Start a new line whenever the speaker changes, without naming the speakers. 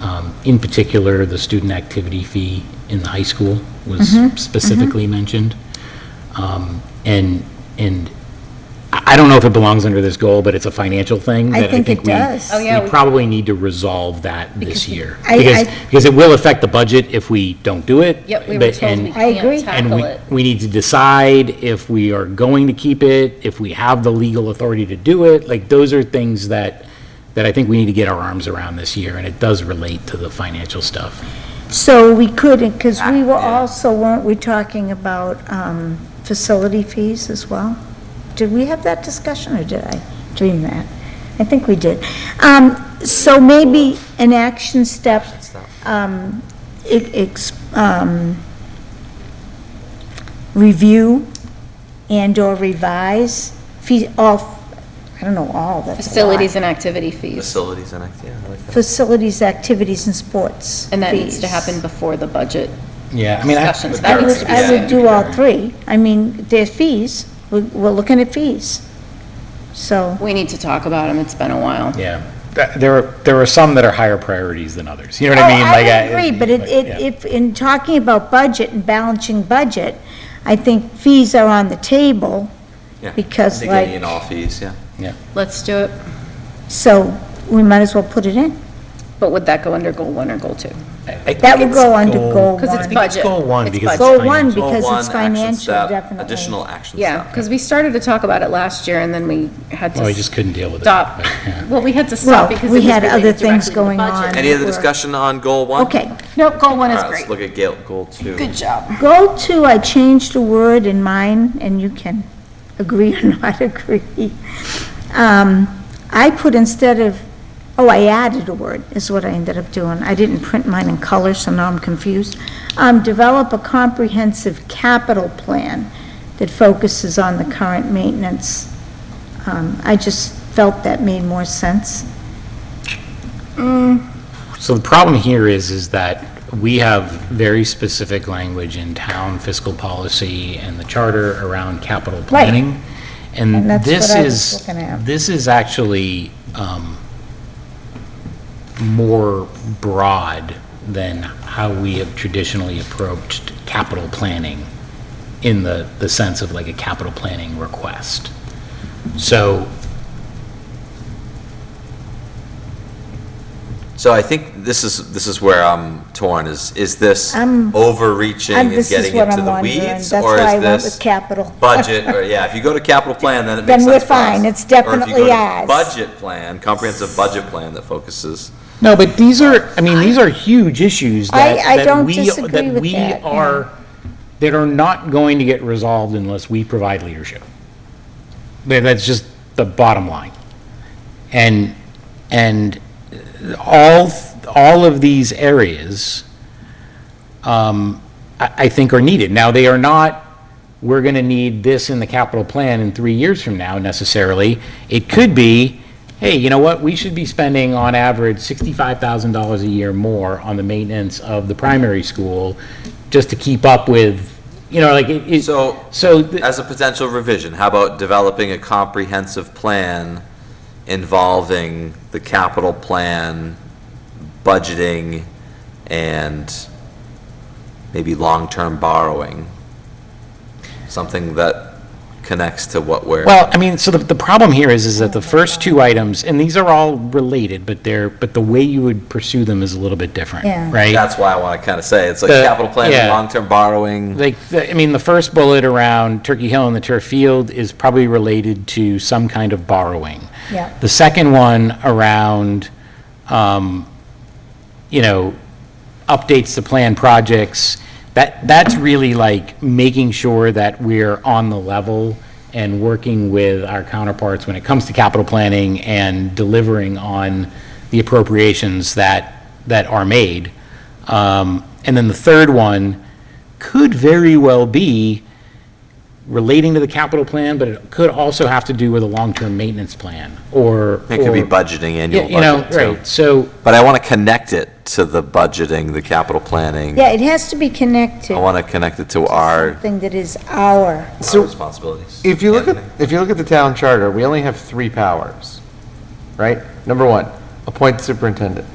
Um, In particular, the student activity fee in the high school was
Mm-hmm.
specifically mentioned. Um, And, and I I don't know if it belongs under this goal, but it's a financial thing.
I
that
think it
we-
does. Oh,
yeah,
We
we-
probably need to resolve that this year.
I-
Because,
I-
because it will affect the budget if we don't do it.
Yep, we were
but-
told
and-
we
I agree.
can't
and
tackle
we,
it.
we need to decide if we are going to keep it, if we have the legal authority to do it. Like, those are things that, that I think we need to get our arms around this year, and it does relate to the financial stuff.
So we could, because we were also, weren't we talking about um, facility fees as well? Did we have that discussion, or did I dream that? I think we did. Um, So maybe an action step, um, e- ex- um, review and/or revise, fee, all, I don't know, all, that's a lot.
Facilities and activity fees.
Facilities and, act- yeah, I like that.
Facilities, activities, and sports
And that needs to
fees.
happen before the budget
Yeah, I mean, I,
discussions.
I
That needs
would,
to be
I would
soon.
do all three. I mean, there's fees, we're, we're looking at fees. So,
We need to talk about them, it's been a while.
yeah. Th- There are, there are some that are higher priorities than others, you know
oh,
what I mean?
I
Like,
agree, but it, it,
yeah.
if, in talking about budget and balancing budget, I think fees are on the table,
Yeah.
because
I think any
like-
and all fees, yeah.
Let's do it,
so we might as well put it in.
but would that go under goal one or goal two?
I- I
That
think
would
it's
go under goal
Because it's
one.
think it's
budget.
goal one,
It's
because it's
budget.
Goal one,
financial.
because
Goal one,
it's
action
financial,
step,
definitely.
Additional action
Yeah,
step.
because we started to talk about it last year, and then we had to.
Well, we just couldn't deal with it,
Stop.
but, yeah.
Well, we had to
Well,
stop because it
we
was
had other
related
things
directly to the
going
budget.
on.
Any other
Work.
discussion on goal one?
Okay.
Nope, goal one
All
is
right, let's
great.
look at Gale, goal two.
Good job.
Goal two, I changed a word in mine, and you can agree or not agree. Um, I put instead of, oh, I added a word, is what I ended up doing. I didn't print mine in color, so now I'm confused. Um, Develop a comprehensive capital plan that focuses on the current maintenance. Um, I just felt that made more sense.
So the problem here is, is that we have very specific language in town fiscal policy and the charter around capital planning.
And
And
that's
this
what I was
is,
looking at.
this is actually um, more broad than how we have traditionally approached capital planning in the, the sense of like a capital planning request. So
So I think this is, this is where I'm torn, is, is this
I'm-
overreaching
I'm-
and
this is
getting
what
into
I'm
the
wondering.
weeds?
That's why
or is
I went
this
with capital.
Budget, or, yeah, if you go to capital plan, then it
Then
makes sense.
we're
for us.
fine. It's
Or if you go
definitely
to
ours.
Budget plan, comprehensive budget plan that focuses,
No, but these are, I mean, these are huge issues that,
I- I
that
don't
we,
disagree
that
with
we
that, yeah.
are, that are not going to get resolved unless we provide leadership. That- That's just the bottom line. And, and all, all of these areas, um, I, I think are needed. Now, they are not, we're gonna need this in the capital plan in three years from now necessarily. It could be, hey, you know what, we should be spending on average sixty-five thousand dollars a year more on the maintenance of the primary school just to keep up with, you know, like, it, it-
So,
so. th-
as a potential revision, how about developing a comprehensive plan involving the capital plan, budgeting, and maybe long-term borrowing? Something that connects to what we're.
Well, I mean, so the, the problem here is, is that the first two items, and these are all related, but they're, but the way you would pursue them is a little bit different,
Yeah.
right?
That's why I want to kind of say, it's like
The-
capital plan,
yeah.
long-term borrowing.
Like, the- I mean, the first bullet around Turkey Hill and the turf field is probably related to some kind of borrowing.
Yeah.
The second one around, um, you know, updates to plan projects, that, that's really like making sure that we're on the level and working with our counterparts when it comes to capital planning and delivering on the appropriations that, that are made. Um, And then the third one could very well be relating to the capital plan, but it could also have to do with a long-term maintenance plan or.
It could be
or-
budgeting,
Yeah,
annual
You know,
budget, too.
right, so.
But I want to connect it to the budgeting, the capital planning.
Yeah, it has to be connected
I
to
want to connect it to Oh, our
something that is our,
our responsibilities.
If you look at,
Anthony?
if you look at the town charter, we only have three powers, right? Number one, appoint superintendent.